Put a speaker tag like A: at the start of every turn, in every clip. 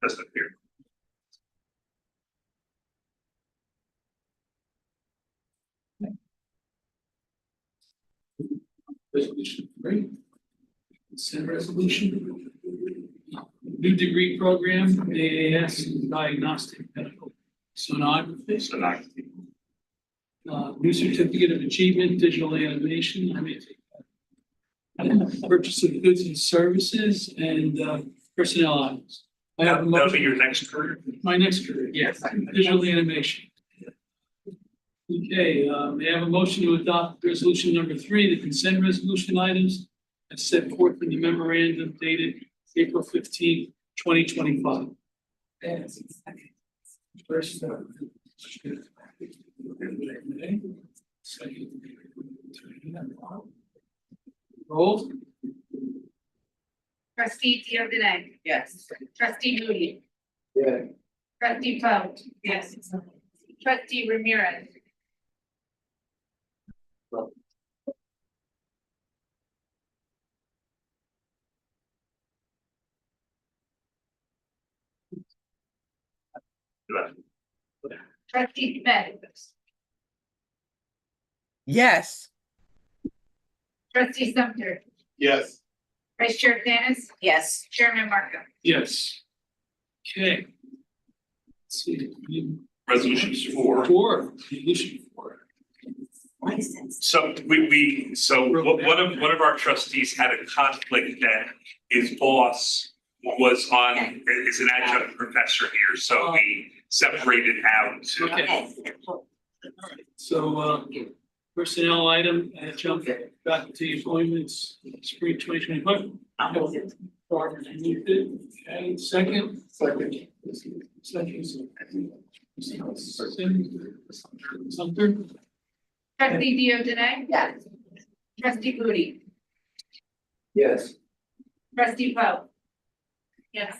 A: That's not here.
B: Resolution three. Consent resolution. New degree program, AAS in diagnostic medical sonography.
A: So not.
B: Uh, new certificate of achievement, digital animation, I mean. Purchase of goods and services and uh, personnel items. I have a
A: That'll be
B: motion,
A: your next career.
B: my next career, yes, digital animation. Okay, uh, may I have a motion to adopt resolution number three, the consent resolution items as set forth in the memorandum dated April fifteenth, twenty twenty-five.
C: Yes.
B: First. uh, second. Roll,
D: Trustee Diogene.
C: Yes.
D: Trustee Moody. Yeah. Trustee Poe. Yes. Trustee Ramirez. Trustee Smith.
E: Yes,
D: Trustee Sumter.
F: Yes.
D: Vice Chair Dennis.
C: Yes.
D: Chairman Marco.
B: yes. Okay. Let's see.
A: Resolutions four.
B: Four, resolution four.
C: License.
A: So we, we, so one one of, one of our trustees had a conflict that his boss was on, is an adjunct professor here, so we separated out.
B: Okay. So, uh, personnel item, uh, jump faculty appointments, spring twenty twenty-five. Barbara, you moved it, okay, second? Second. Second. Sumter?
D: Trustee Diogene.
C: Yes.
D: Trustee Moody.
B: Yes.
D: Trustee Poe. Yes.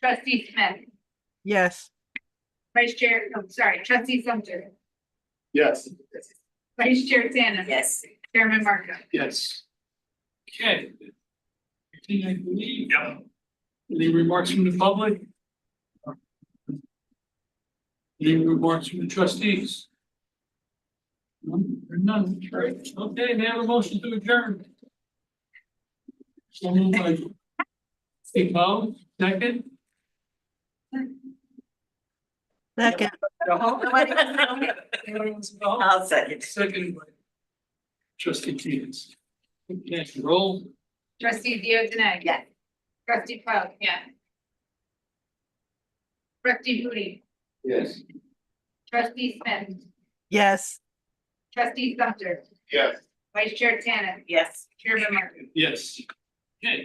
D: Trustee Smith.
E: yes,
D: Vice Chair, I'm sorry, Trustee Sumter.
F: Yes.
D: Vice Chair Dennis.
C: Yes.
D: Chairman Marco.
B: Yes. Okay. Everything I believe.
A: Yep.
B: Any remarks from the public? Any remarks from the trustees? None, There are none, Great. okay, may I have a motion to adjourn? Someone like. Hey, Mo, second?
E: second,
B: Mo?
C: I'll second.
B: Second. by Trustee Keenan's. Yes, roll,
D: Trustee Diogene.
C: Yes.
D: Trustee Poe, yeah. Trustee Moody. Yes. Trustee Smith,
E: yes.
D: trustee Sumter,
F: Yes.
D: vice chair Tanner,
C: Yes.
D: chairman Martin.
B: yes. Okay.